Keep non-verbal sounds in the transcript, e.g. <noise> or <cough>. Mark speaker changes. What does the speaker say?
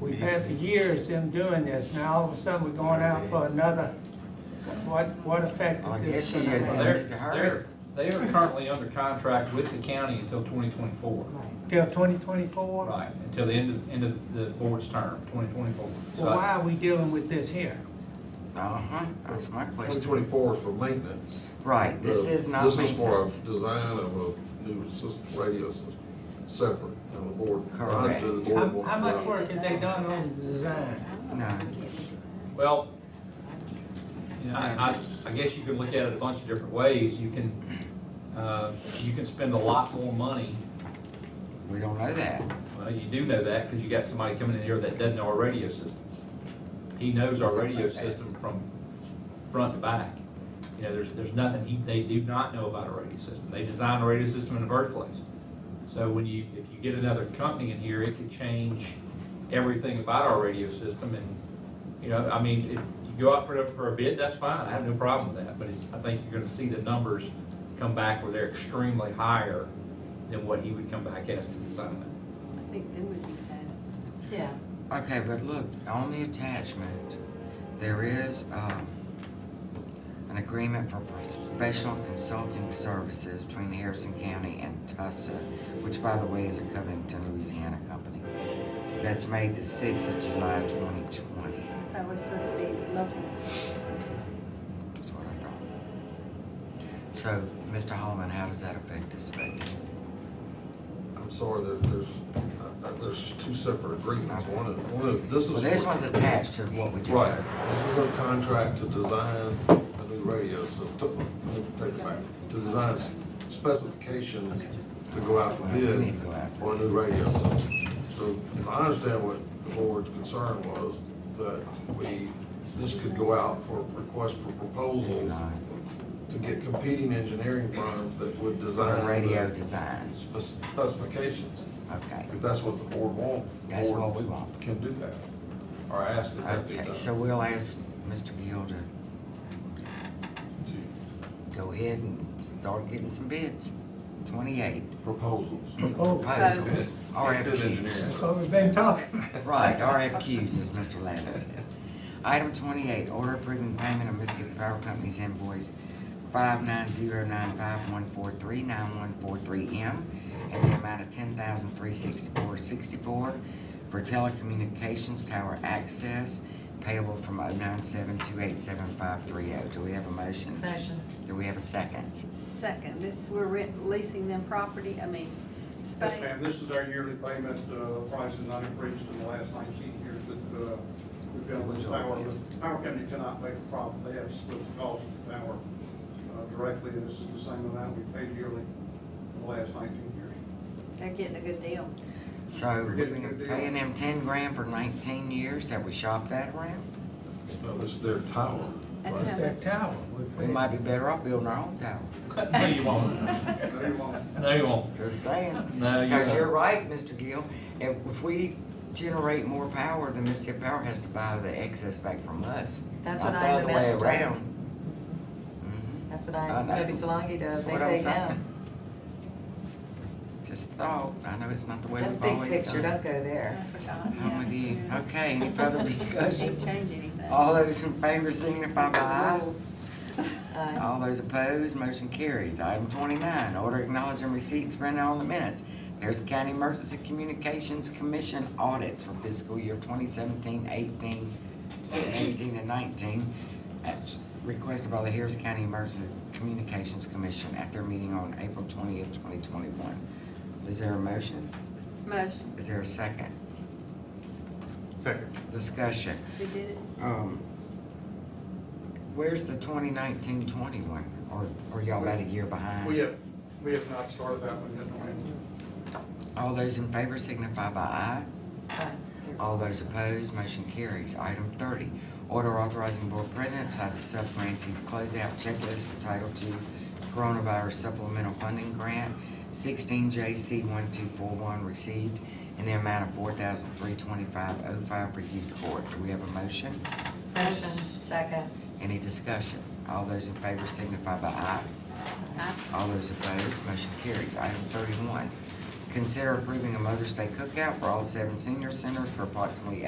Speaker 1: We've had for years them doing this, now all of a sudden we're going out for another, what, what effect
Speaker 2: I
Speaker 1: is this
Speaker 2: guess you
Speaker 1: gonna
Speaker 2: had-
Speaker 1: have?
Speaker 2: Well,
Speaker 3: They're,
Speaker 2: they hired
Speaker 3: they're, they are currently under contract with the county until twenty twenty-four.
Speaker 1: Till twenty twenty-four?
Speaker 3: Right, until the end of, end of the board's term, twenty twenty-four.
Speaker 1: Well, why are we dealing with this here?
Speaker 2: Uh-huh, that's my
Speaker 4: Twenty
Speaker 2: question.
Speaker 4: twenty-four is for maintenance.
Speaker 2: Right, this
Speaker 4: The-
Speaker 2: is not
Speaker 4: This is for a
Speaker 2: maintenance.
Speaker 4: design of a new system, radio system, separate, and the board. I understood the
Speaker 1: How,
Speaker 4: board
Speaker 1: how
Speaker 4: wants
Speaker 1: much
Speaker 4: to-
Speaker 1: work have they done on the design?
Speaker 2: No.
Speaker 3: Well, you know, I, I, I guess you can look at it a bunch of different ways. You can, uh, you can spend a lot more money.
Speaker 2: We don't know that.
Speaker 3: Well, you do know that because you got somebody coming in here that doesn't know our radio system. He knows our radio system from front to back. You know, there's, there's nothing, he, they do not know about our radio system. They designed a radio system in the first place. So when you, if you get another company in here, it could change everything about our radio system and, you know, I mean, if you go out for, the- for a bid, that's fine, I have no problem with that, but it's, I think you're gonna see the numbers come back where they're extremely higher than what he would come back as to design it.
Speaker 5: I think they would be satisfied.
Speaker 6: Yeah.
Speaker 2: Okay, but look, on the attachment, there is, um, an agreement for professional consulting services between Harrison County and Tussa, which by the way is a Covington, Louisiana company. That's made the sixth of July twenty twenty,
Speaker 5: I thought we were supposed to be local.
Speaker 2: is what I thought. So, Mr. Holman, how does that affect this budget?
Speaker 4: I'm sorry, there, there's, uh, uh, there's just two separate agreements, one is, one is, this is.
Speaker 2: Well, this
Speaker 4: for-
Speaker 2: one's attached to what we just
Speaker 4: Right,
Speaker 2: heard.
Speaker 4: this is a contract to design a new radio, so, to- let me take it back, to design specifications to go out
Speaker 2: Well,
Speaker 4: for
Speaker 2: we
Speaker 4: bid
Speaker 2: need to go after
Speaker 4: for a new radio. So, so if I understand what the board's concern was, that we, this could go out for request for
Speaker 2: It's
Speaker 4: proposals
Speaker 2: not.
Speaker 4: to get competing engineering firms that would design.
Speaker 2: Radio
Speaker 4: the
Speaker 2: design,
Speaker 4: spec- Specifications,
Speaker 2: okay.
Speaker 4: if that's what the board wants. the
Speaker 2: That's
Speaker 4: board
Speaker 2: what we want.
Speaker 4: Can do that, or ask that that be done.
Speaker 2: Okay, so we'll ask Mr. Gill to
Speaker 4: to
Speaker 2: go ahead and start getting some bids. Twenty-eight
Speaker 4: proposals.
Speaker 2: proposals,
Speaker 4: engineering.
Speaker 2: RFQs.
Speaker 1: That's what we've been talking.
Speaker 2: Right, RFQs, as Mr. Ladner says. Item twenty-eight, order approving payment of Mississippi Power Company's invoice five nine zero nine five one four three nine one four three M in the amount of ten thousand three sixty-four sixty-four for telecommunications tower access payable from oh nine seven two eight seven five three oh. Do we have a motion?
Speaker 6: Motion.
Speaker 2: Do we have a second?
Speaker 5: Second, this, we're rent- leasing them property, I mean, space.
Speaker 7: Yes, ma'am, this is our yearly payment, uh, price has not increased in the last nineteen years that, uh, we've been with Power. But Power company cannot make a profit, they have to split the cost of Power, uh, directly, and this is the same amount we paid yearly in the last nineteen years.
Speaker 5: They're getting a good deal.
Speaker 2: So
Speaker 7: We're
Speaker 2: we've
Speaker 7: getting a
Speaker 2: been
Speaker 7: good deal.
Speaker 2: paying them ten grand for nineteen years, have we shopped that around?
Speaker 4: No, it's their tower.
Speaker 5: That's
Speaker 4: right?
Speaker 5: how-
Speaker 1: That tower. we've
Speaker 2: We
Speaker 1: been-
Speaker 2: might be better off building our own tower,
Speaker 3: <laughs> No, you won't.
Speaker 5: <laughs>
Speaker 7: No, you won't.
Speaker 3: No, you won't.
Speaker 2: just saying.
Speaker 3: No, you
Speaker 2: Because you're
Speaker 3: won't.
Speaker 2: right, Mr. Gill, if, if we generate more power, then Mississippi Power has to buy the excess back from us.
Speaker 6: That's
Speaker 2: not
Speaker 6: what
Speaker 2: the other way
Speaker 6: IMS does.
Speaker 2: around. Mhm.
Speaker 6: That's what
Speaker 2: I
Speaker 6: I,
Speaker 2: know.
Speaker 6: Maybe Solange does,
Speaker 2: That's
Speaker 6: they
Speaker 2: what I'm
Speaker 6: pay
Speaker 2: saying.
Speaker 6: down.
Speaker 2: Just thought, I know it's not the way
Speaker 6: That's
Speaker 2: we've
Speaker 6: big
Speaker 2: always
Speaker 6: picture,
Speaker 2: done. it.
Speaker 6: don't go there.
Speaker 2: I'm with you, okay, any
Speaker 6: <laughs>
Speaker 2: further discussion?
Speaker 5: Didn't change anything.
Speaker 2: All those in favor signify by aye.
Speaker 5: Rules.
Speaker 6: Aye.
Speaker 2: All those opposed, motion carries. Item twenty-nine, order acknowledging receipts printed on the minutes. Harris County Emergency Communications Commission audits for fiscal year 2017-18, 18 and nineteen. That's requested by the Harris County Emergency Communications Commission at their meeting on April twentieth, twenty twenty-one. Is there a motion?
Speaker 5: <laughs> Motion,
Speaker 2: Is there a second?
Speaker 4: Second.
Speaker 2: Discussion.
Speaker 5: we did it.
Speaker 2: Um, where's the 2019-20 one? Or, or y'all about a year behind?
Speaker 7: We have, we have not started that one yet, no, ma'am.
Speaker 2: All those in favor signify by aye.
Speaker 6: Aye.
Speaker 2: All those opposed, motion carries. Item thirty, order authorizing board president to sign the subgrantee closeout checklist for Title II Coronavirus Supplemental Funding Grant sixteen J C one two four one received in the amount of four thousand three twenty-five oh five for youth court. Do we have a motion?
Speaker 6: Motion, second.
Speaker 2: Any discussion? All those in favor signify by aye.
Speaker 5: Aye.
Speaker 2: All those opposed, motion carries. Item thirty-one, consider approving a Mother's Day cookout for all seven senior centers for approximately